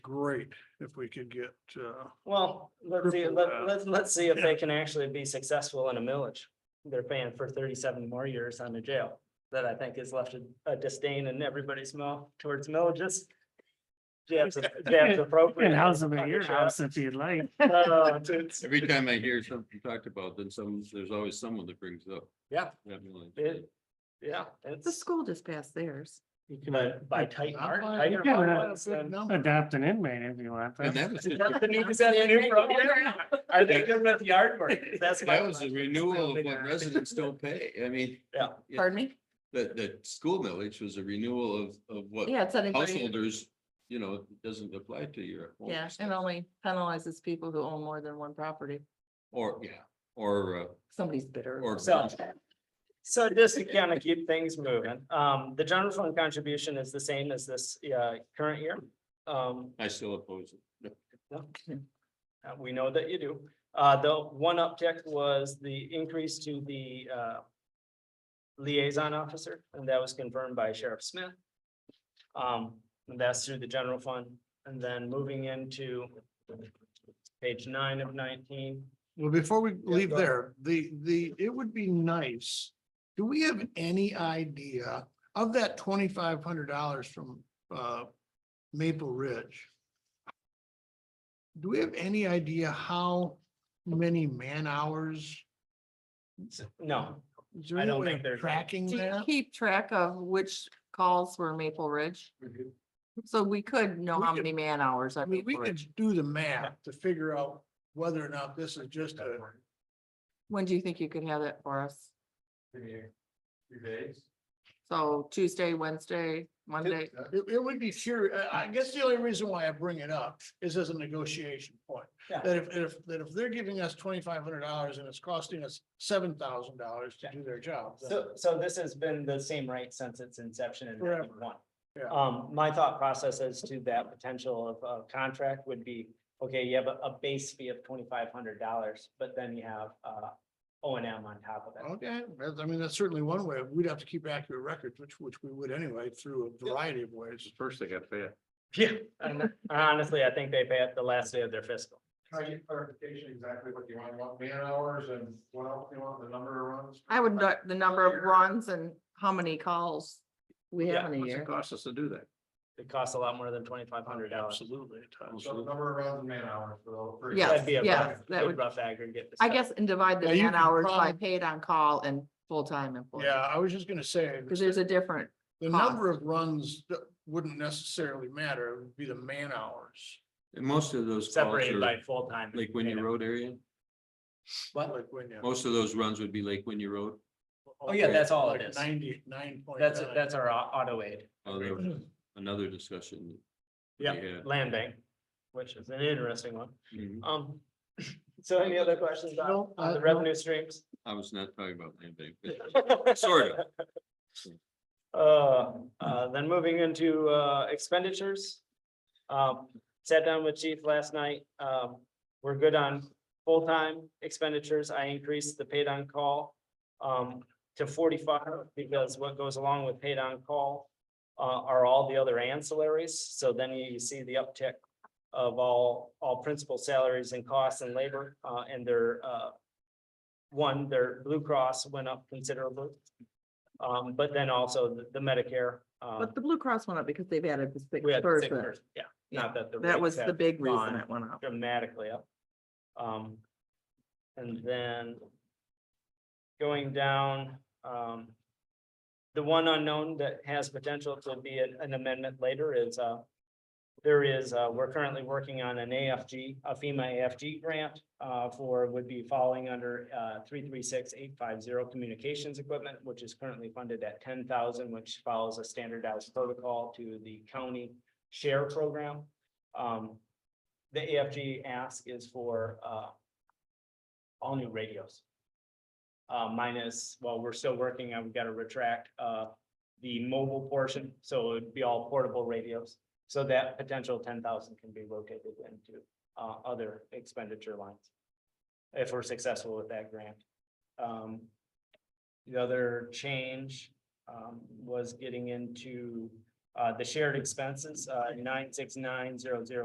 great if we could get, uh, Well, let's see, Triple let, uh, that. let's, let's see if they Yeah. can actually be successful in a millage. They're paying for thirty-seven more years on the jail. That I think has left a- a disdain in everybody's mouth towards millages. Jabs, jabs appropriate. And house them Fuck at your it, house if you'd like. Jeff. Uh, it's- Every time I hear something talked about, then some, there's always someone that brings up. Yeah, that millage. it, yeah, The it's, school just passed theirs. you can uh, buy tight mark. You tighter can, uh, margins than- Adopt an inmate if you want. that's- And that was, Is just- that the new, is that the new program? Are they good with yard work? That's my that was a question. renewal of what residents don't pay. I mean, Yeah. Pardon me? that, that school millage was a renewal of, of what Yeah, it's an agreement. householders, you know, it doesn't apply to your. home Yeah, stuff. it only penalizes people who own more than one property. Or, yeah, or, uh, Somebody's bitter. or. So, so just to kind of keep things moving, um, the general fund contribution is the same as this, uh, current year. Um, I still oppose it. uh, we know that you do. Uh, the one uptick was the increase to the, uh, liaison officer, and that was confirmed by Sheriff Smith. Um, and that's through the general fund, and then moving into page nine of nineteen. Well, before we leave go ahead. there, the, the, it would be nice. Do we have any idea of that twenty-five hundred dollars from, uh, Maple Ridge? Do we have any idea how many man hours? No, Is there I any don't way think of there's any. Tracking Do you that? keep track of which calls were Maple Ridge? So we could know We how could- many man hours I are mean, we Maple could Ridge. do the math to figure out whether or not this is just a, When do you think you could have that for us? Three days. So Tuesday, Wednesday, Monday? it, it would be sure, I, I guess the only reason why I bring it up is as a negotiation point. Yeah. That if, if, that if they're giving us twenty-five hundred dollars and it's costing us seven thousand dollars to do their job. then- So, so this has been the same rate since its inception in Forever. ninety-one. Yeah. Um, my thought process as to that potential of, of contract would be, okay, you have a, a base fee of twenty-five hundred dollars, but then you have, uh, O and M on top of it. Okay, that's- I mean, that's certainly one way. We'd have to keep accurate records, which, which we would anyway, through a variety of ways. First they got paid. Yeah. And honestly, I think they pay it the last day of their fiscal. Can I get clarification exactly what you want, you want man hours and what else you want, the number of runs? I would, know the number of runs and how many calls we Yeah, have in a What's it year. cost us to do that? It costs a lot more than twenty-five hundred dollars. Absolutely. it does. So the number of runs and man hours for those. for each- Yes, That'd be a yes, rough, that good would- rough aggregate. I guess and divide the Yeah, you man can hours by prob- paid on call and full-time employees. Yeah, I was just gonna say. Cause there's a different, The number of runs that wouldn't necessarily matter, it would be the man hours. And most of those calls Separated by are full-time. Lake Winnie Road area. Like when you. Most of those runs would be Lake Winnie Road. Oh, yeah, that's all it like is. Ninety-nine point. That's, that's our au- auto aid. Although, Another discussion. we Yeah, had. land bank, which is an interesting one. Mhm. Um, so any other questions on No, on uh, the no. revenue streams? I was not talking about land bank. but Sort of. Uh, uh, then moving into, uh, expenditures. Um, sat down with chief last night, um, we're good on full-time expenditures, I increased the paid on call. Um, to forty-five, because what goes along with paid on call, uh, are all the other ancillaries, so then you see the uptick. Of all, all principal salaries and costs and labor, uh, and their, uh. One, their Blue Cross went up considerably. Um, but then also the- the Medicare, um, but the Blue Cross went up because they've added the sick we had the sick person. person, yeah, not that the. That rates was the have big reason gone it went up. dramatically up. Um, and then going down, um, the one unknown that has potential to be an- an amendment later is, uh, there is, uh, we're currently working on an AFG, a FEMA AFG grant, uh, for, would be falling under, uh, three, three, six, eight, five, zero communications equipment, which is currently funded at ten thousand, which follows a standardized protocol to the county share program. Um, the AFG ask is for uh. All new radios. Uh, minus, well, we're still working on, we've got to retract uh the mobile portion, so it'd be all portable radios. So that potential ten thousand can be rotated into uh other expenditure lines. If we're successful with that grant. Um. The other change um was getting into uh the shared expenses, uh nine six nine zero zero